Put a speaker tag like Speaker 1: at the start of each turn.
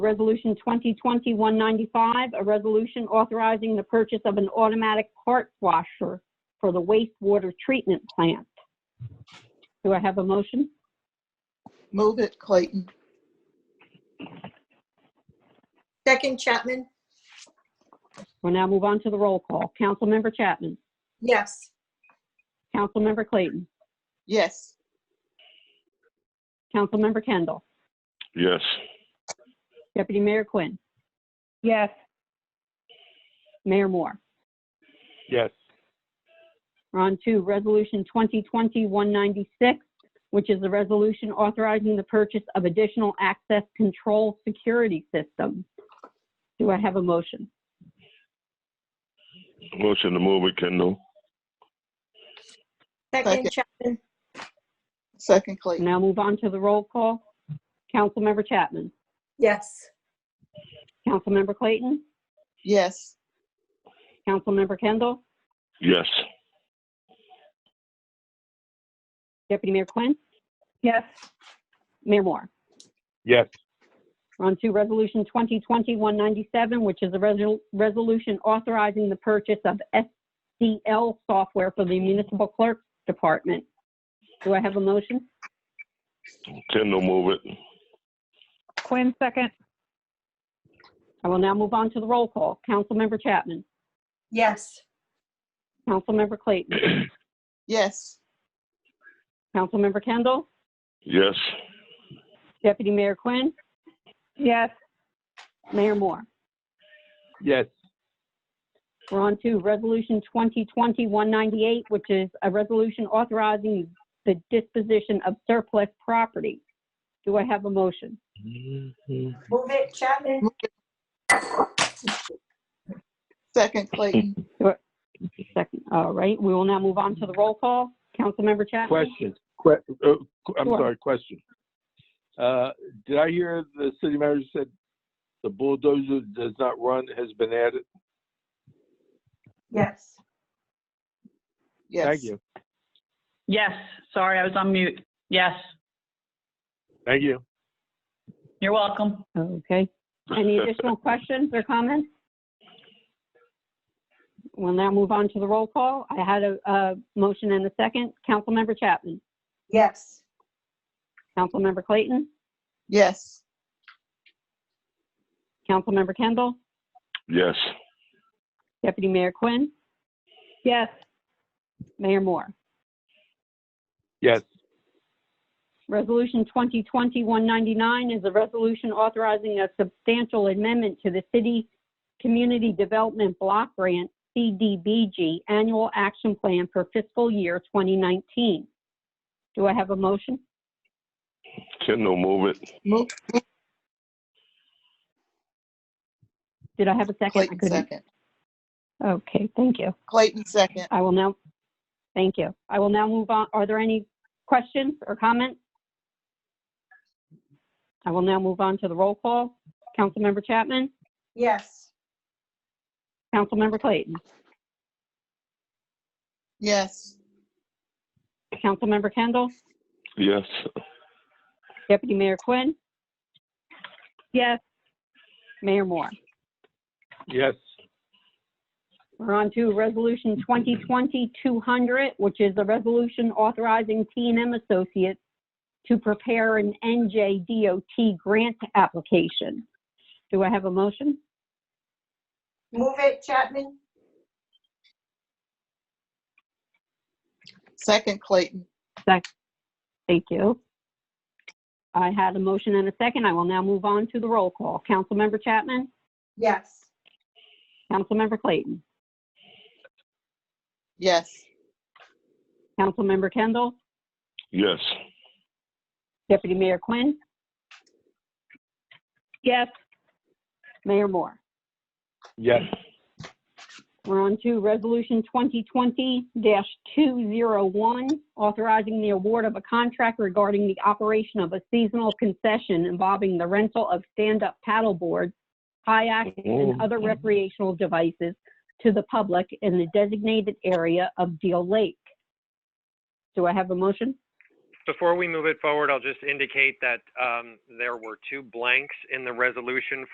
Speaker 1: Resolution 2020-195, a resolution authorizing the purchase of an automatic cart washer for the wastewater treatment plant. Do I have a motion?
Speaker 2: Move it, Clayton.
Speaker 3: Second Chapman?
Speaker 1: We'll now move on to the roll call. Councilmember Chapman.
Speaker 3: Yes.
Speaker 1: Councilmember Clayton.
Speaker 2: Yes.
Speaker 1: Councilmember Kendall.
Speaker 4: yes,
Speaker 1: Deputy Mayor Quinn.
Speaker 5: yes,
Speaker 1: Mayor Moore.
Speaker 6: yes,
Speaker 1: We're on to Resolution 2020-196, which is the resolution authorizing the purchase of additional access control security system. Do I have a motion?
Speaker 4: motion to move it, Kendall,
Speaker 3: Second
Speaker 2: Second.
Speaker 3: Chapman?
Speaker 2: Second, Clayton.
Speaker 1: Now move on to the roll call. Councilmember Chapman.
Speaker 3: Yes.
Speaker 1: Councilmember Clayton.
Speaker 2: Yes.
Speaker 1: Councilmember Kendall.
Speaker 4: yes,
Speaker 1: Deputy Mayor Quinn.
Speaker 5: yes,
Speaker 1: Mayor Moore.
Speaker 6: yes,
Speaker 1: On to Resolution 2020-197, which is a resol- resolution authorizing the purchase of SDL software for the municipal clerk's department. Do I have a motion?
Speaker 4: Kendall move it,
Speaker 5: Quinn second,
Speaker 1: I will now move on to the roll call. Councilmember Chapman.
Speaker 3: Yes.
Speaker 1: Councilmember Clayton.
Speaker 2: Yes.
Speaker 1: Councilmember Kendall.
Speaker 4: yes,
Speaker 1: Deputy Mayor Quinn.
Speaker 5: yes,
Speaker 1: Mayor Moore.
Speaker 6: yes,
Speaker 1: We're on to Resolution 2020-198, which is a resolution authorizing the disposition of surplus property. Do I have a motion?
Speaker 3: Move it Chapman?
Speaker 2: Second, Clayton.
Speaker 1: Second, all right, we will now move on to the roll call. Councilmember Chapman?
Speaker 6: question, que- uh, qu- I'm
Speaker 1: Sure.
Speaker 6: sorry, question. Uh, did I hear the city manager said the bulldozer does not run, has been added?
Speaker 3: Yes.
Speaker 2: Yes.
Speaker 6: Thank you,
Speaker 7: Yes, sorry, I was on mute. Yes,
Speaker 6: thank you.
Speaker 7: you're welcome.
Speaker 1: Okay. Any additional questions or comments? We'll now move on to the roll call. I had a, a motion and a second. Councilmember Chapman?
Speaker 3: Yes.
Speaker 1: Councilmember Clayton?
Speaker 2: Yes.
Speaker 1: Councilmember Kendall?
Speaker 4: yes,
Speaker 1: Deputy Mayor Quinn?
Speaker 5: yes,
Speaker 1: Mayor Moore?
Speaker 6: Yes,
Speaker 1: Resolution 2020-199 is a resolution authorizing a substantial amendment to the City Community Development Block Grant, CDBG, Annual Action Plan for fiscal year 2019. Do I have a motion?
Speaker 4: Kendall move it,
Speaker 2: Move,
Speaker 1: Did I have a second? I
Speaker 2: Clayton,
Speaker 1: couldn't-
Speaker 2: second.
Speaker 1: Okay, thank you.
Speaker 2: Clayton, second.
Speaker 1: I will now, thank you. I will now move on. Are there any questions or comments? I will now move on to the roll call. Councilmember Chapman?
Speaker 3: Yes.
Speaker 1: Councilmember Clayton?
Speaker 2: Yes.
Speaker 1: Councilmember Kendall?
Speaker 4: yes,
Speaker 1: Deputy Mayor Quinn,
Speaker 5: yes,
Speaker 1: Mayor Moore.
Speaker 6: yes,
Speaker 1: We're on to Resolution 2020-200, which is a resolution authorizing t and m Associates to prepare an NJDOT grant application. Do I have a motion?
Speaker 3: Move it Chapman?
Speaker 2: Second, Clayton.
Speaker 1: Thank you. I had a motion and a second. I will now move on to the roll call. Councilmember Chapman?
Speaker 3: Yes.
Speaker 1: Councilmember Clayton?
Speaker 2: Yes.
Speaker 1: Councilmember Kendall?
Speaker 4: yes,
Speaker 1: Deputy Mayor Quinn?
Speaker 5: yes,
Speaker 1: Mayor Moore?
Speaker 6: yes,
Speaker 1: We're on to Resolution 2020-201, authorizing the award of a contract regarding the operation of a seasonal concession involving the rental of stand-up paddle boards, kayaks, and other recreational devices to the public in the designated area of Deal Lake. Do I have a motion?
Speaker 8: before we move it forward, I'll just indicate that um, there were two blanks in the resolution